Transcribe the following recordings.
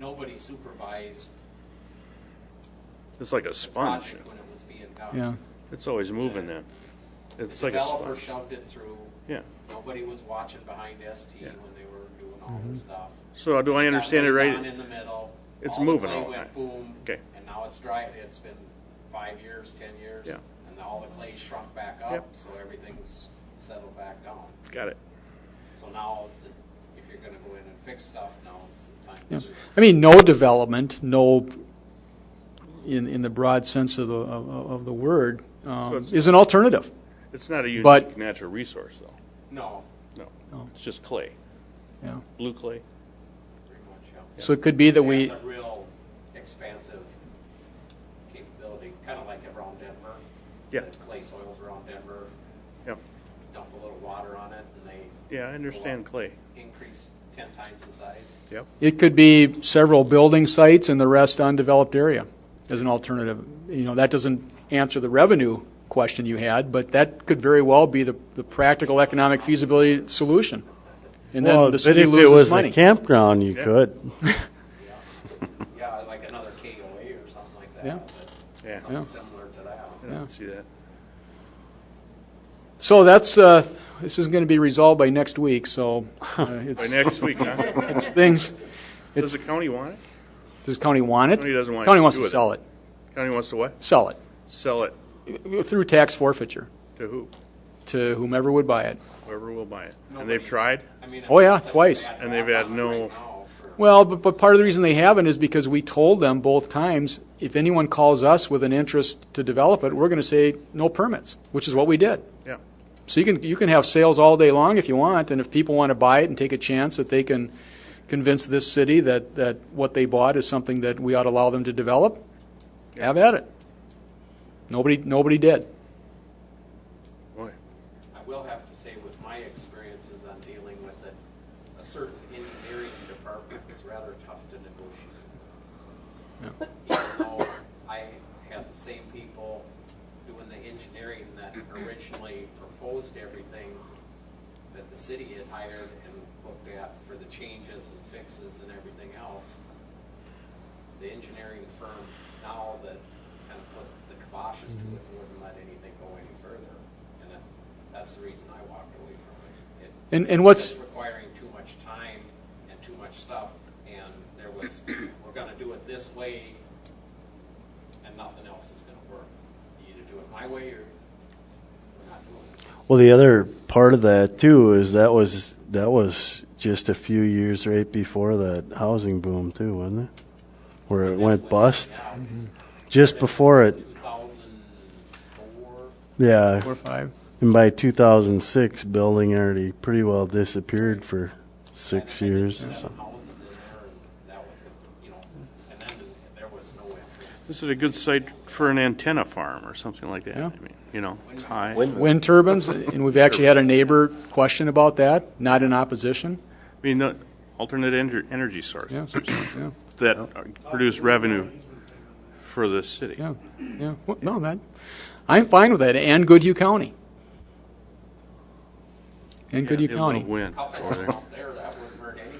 nobody supervised It's like a the sponge. project when it was being done. yeah. It's always moving then. It's like a Developer sponge. shoved it through. Yeah. Nobody was watching behind ST Yeah. when they were doing all their stuff. So do I understand it Got laid down right? in the middle. It's all the moving clay all the went time. Boom. Okay. And now it's dry, it's been five years, ten years. Yeah. And now all the clay shrunk back Yep. up, so everything's settled back down. Got it. So now is the, if you're gonna go in and fix stuff, now's the time to Yes. do it. I mean, no development, no, in, in the broad sense of the, of, of the word, So um, it's- is an alternative. It's not a But- unique natural resource though. No, No. No. It's just clay, Yeah. blue clay. pretty much, yeah. So it could be that It's we, a real expansive capability, kinda like around Denver. Yeah. The clay soils around Denver, Yep. dump a little water on it and they Yeah, I understand clay. increase ten times the size. Yep. it could be several building sites and the rest undeveloped area as an alternative. You know, that doesn't answer the revenue question you had, but that could very well be the, the practical economic feasibility solution. And Well, then the but city if it loses was money. a campground, you could. Yeah, like another KOA or something like that. Yeah. Yeah. That's Yeah. something similar to that. I don't see that. So that's, uh, this is going to be resolved by next week, so uh, it's, By next week, huh? it's things, Does the county want it? does county want it? County doesn't want County anything wants to do to with it. sell it, County wants to what? sell it, Sell it through tax forfeiture to who? to whomever would buy it. Whoever will buy it. And Nobody. they've tried? I mean, it's Oh, yeah, such a twice. bad And they've had background no- right now for- Well, but, but part of the reason they haven't is because we told them both times, if anyone calls us with an interest to develop it, we're going to say no permits, which is what we did. Yeah. So you can, you can have sales all day long if you want, and if people want to buy it and take a chance that they can convince this city that, that what they bought is something that we ought to allow them to develop, have at it. Nobody, nobody did. Boy. I will have to say with my experiences on dealing with it, a certain engineering department is rather tough to negotiate. Even though I had the same people doing the engineering that originally proposed everything that the city had hired and looked at for the changes and fixes and everything else. The engineering firm now that kind of put the kiboshes to it wouldn't let anything go any further. And that, that's the reason I walked away from it. It- And, and what's, it's requiring too much time and too much stuff, and there was, we're gonna do it this way, and nothing else is gonna work. You either do it my way, or we're not doing it. Well, the other part of that too is that was that was just a few years right before that housing boom too, wasn't it? Where it went bust. Just before it, Two thousand four, yeah. four, five? And by 2006, building already pretty well disappeared for six years. So. seven houses in there, and that was, it, you know, and then there was no interest. This is a good site for an antenna farm or something like that. Yeah. I mean, you know, it's high. Wind turbines, and we've actually had a neighbor question about that, not in opposition. I mean, the alternate ener- energy source Yeah, yeah, that uh, produce revenue for the city. yeah, yeah. Well, No, that, I'm fine with that, and Goodhue County. And They Goodhue love County. Wind Couple over there. out there, that wouldn't hurt anything,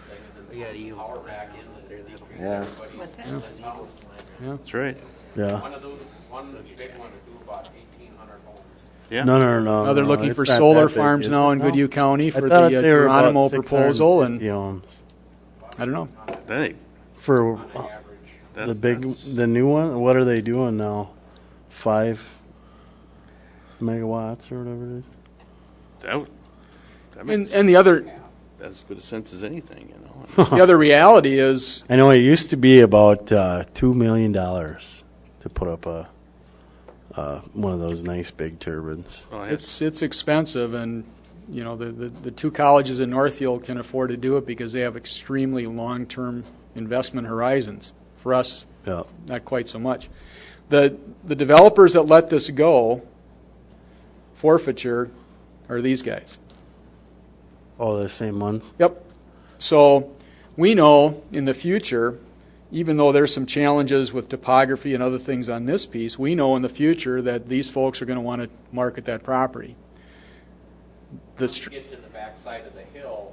and then power back in, and decrease everybody's, the towers. That's right. Yeah. One of those, one big one would do about eighteen hundred homes. Yeah. No, no, no. Now they're no, looking it's for not that solar big, farms is now it? in No. Goodhue County I for the thought uh, they were about Geronimo proposal, 650 and, homes. I don't know. I think for on average. that's, the big that's- the new one. What are they doing now? Five megawatts or whatever it is. that, would- that And, makes and the other, as good a sense as anything, you know. the other reality is, I know it used to be about uh, two million dollars to put up a uh, one of those nice big turbines. Oh, yeah. it's, it's expensive, and, you know, the, the, the two colleges in Northfield can afford to do it because they have extremely long-term investment horizons. For us, Yeah. not quite so much. The, the developers that let this go, forfeiture, are these guys. Oh, the same ones. Yep. So we know in the future, even though there's some challenges with topography and other things on this piece, we know in the future that these folks are going to want to market that property. The Once you str- get to the backside of the hill,